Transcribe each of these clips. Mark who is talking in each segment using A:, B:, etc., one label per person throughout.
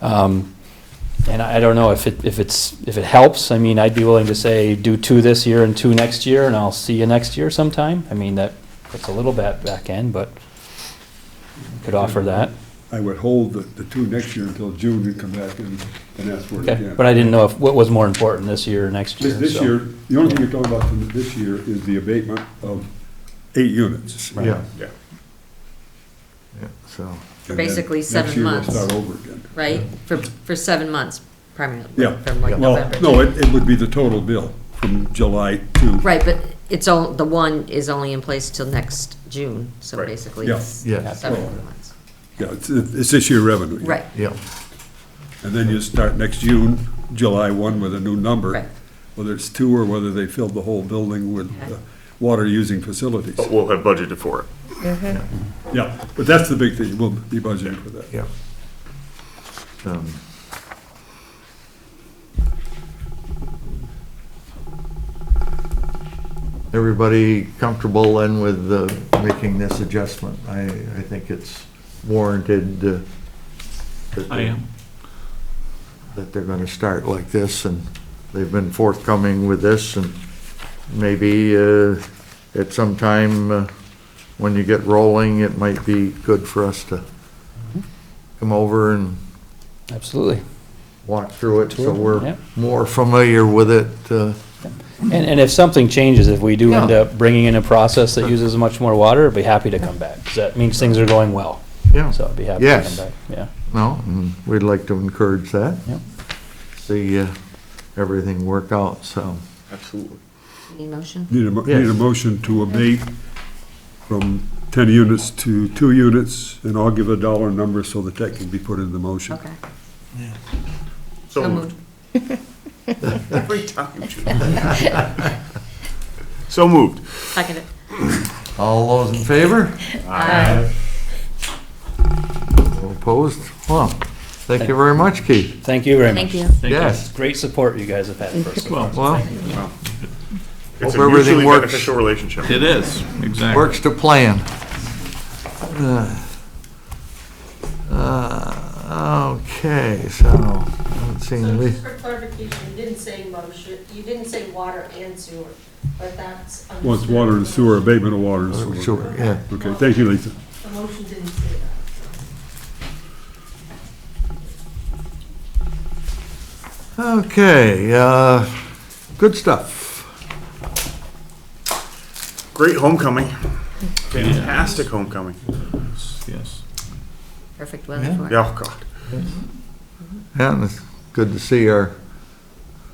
A: Um, And I I don't know if it, if it's, if it helps. I mean, I'd be willing to say, do two this year and two next year, and I'll see you next year sometime. I mean, that puts a little bit back in, but could offer that.
B: I would hold the, the two next year until June and come back and, and ask for it
A: Okay,
B: again.
A: but I didn't know if, what was more important, this year or next year?
B: This, this
A: so-
B: year, the only thing you're talking about from this year is the abatement of eight units.
C: Right. Yeah.
B: Yeah.
C: Yeah, so,
B: And then
D: Basically
B: Next
D: seven
B: year we'll
D: months.
B: start over again.
D: right? For, for seven months primarily,
B: Yeah.
D: from like
B: Well,
D: November.
B: no, it, it would be the total bill from July to,
D: Right, but it's all, the one is only in place till next June, so basically
B: Yeah.
D: it's
C: Yeah.
D: seven
B: Well-
D: months.
B: yeah, it's, it's this year revenue. yeah.
D: Right,
C: yeah,
B: And then you start next June, July one with a new number.
D: Right.
B: Whether it's two or whether they filled the whole building with
D: Okay.
B: uh, water-using facilities.
E: But we'll have budgeted for it.
B: Yeah, but that's the big thing, we'll be budgeting for that.
C: yeah. Um, Everybody comfortable then with uh, making this adjustment? I, I think it's warranted. uh, that
F: I am.
C: That they're gonna start like this, and they've been forthcoming with this, and maybe uh, at some time, uh, when you get rolling, it might be good for us to come over and
A: Absolutely.
C: walk through it, so
A: Tour,
C: we're
A: yeah.
C: more familiar with it. uh,
A: And, and if something changes, if we do end
C: Yeah.
A: up bringing in a process that uses much more water, I'd be happy to come back, 'cause that means things are going well.
C: Yeah,
A: So I'd be happy to come
C: Yes.
A: back, yeah.
C: no, and we'd like to encourage that.
A: Yep.
C: See uh, everything work out, so.
E: Absolutely.
D: any motion?
B: Need a, mo-
C: Yes.
B: need a motion to abate from ten units to two units, and I'll give a dollar number so that that can be put in the motion.
D: Okay.
E: So
D: So
E: moved.
D: moved.
E: Every time, Judy. So moved.
D: Seconded.
C: All those in favor?
D: Aye.
C: All Opposed? Well, thank you very much, Keith.
A: Thank you very much.
D: Thank you.
F: Thank you.
C: Yes,
A: Great support you guys have had for us.
F: Well,
C: well,
E: It's a
C: Hope everything
E: mutually
C: works.
E: beneficial relationship.
F: it is, exactly.
C: works to plan. Uh, Okay, so, I do
G: So
C: we,
G: just for clarification, you didn't say motion, you didn't say water and sewer, but that's.
B: Well, it's water and sewer, abatement of water and sewer.
C: sure, yeah.
B: Okay, thank you, Lisa.
G: The motion didn't say that.
C: Okay, uh, good stuff.
E: Great homecoming. Fantastic homecoming.
F: Yes.
D: Perfect weather for it.
E: Yeah, oh, God.
C: Yeah, and it's good to see our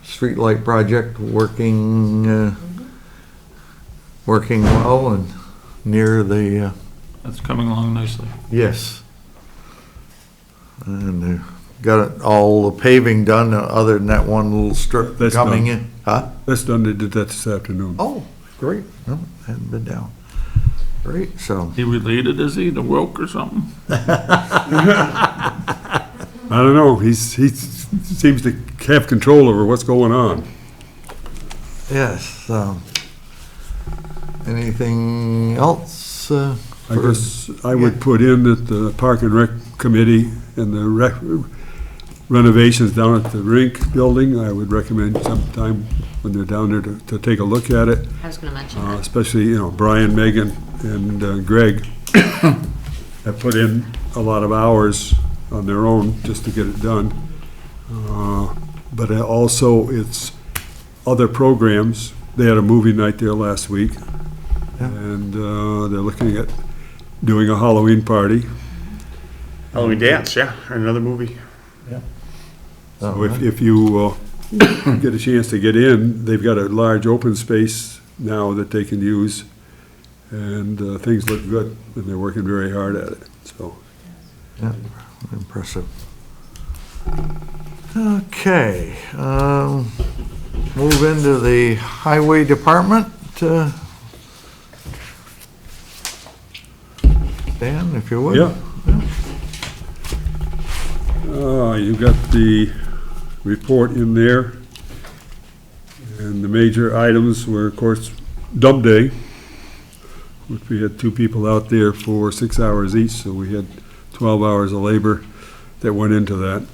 C: streetlight project working, uh, working well and near the, uh,
F: That's coming along nicely.
C: yes. And they got it- all the paving done, uh, other than that one little strip
B: That's
C: coming
B: done.
C: in. Huh?
B: That's done, they did that this afternoon.
C: Oh, great. No, hadn't been down. Great, so,
F: He related, is he, to Wilk or something?
B: I don't know, he's, he seems to have control over what's going on.
C: yes, um, anything else? uh,
B: I
C: for-
B: guess I would put in that the Park and Rec Committee and the rec- renovations down at the rink building, I would recommend sometime when they're down there to, to take a look at it,
D: I was gonna mention
B: uh,
D: that.
B: especially, you know, Brian, Megan, and uh, Greg have put in a lot of hours on their own just to get it done. Uh, But also, it's other programs. They had a movie night there last week,
C: Yeah.
B: and uh, they're looking at doing a Halloween party.
E: Halloween Oh, dance, yeah, another movie.
C: Oh,
B: So If, if you uh, get a chance to get in, they've got a large open space now that they can use, and uh, things look good, and they're working very hard at it, so.
C: Yeah, impressive. Okay, um, move into the highway department. uh, Dan, if you would.
B: Yeah. Uh, You've got the report in there. And the major items were, of course, dump day, which we had two people out there for six hours each, so we had 12 hours of labor that went into that.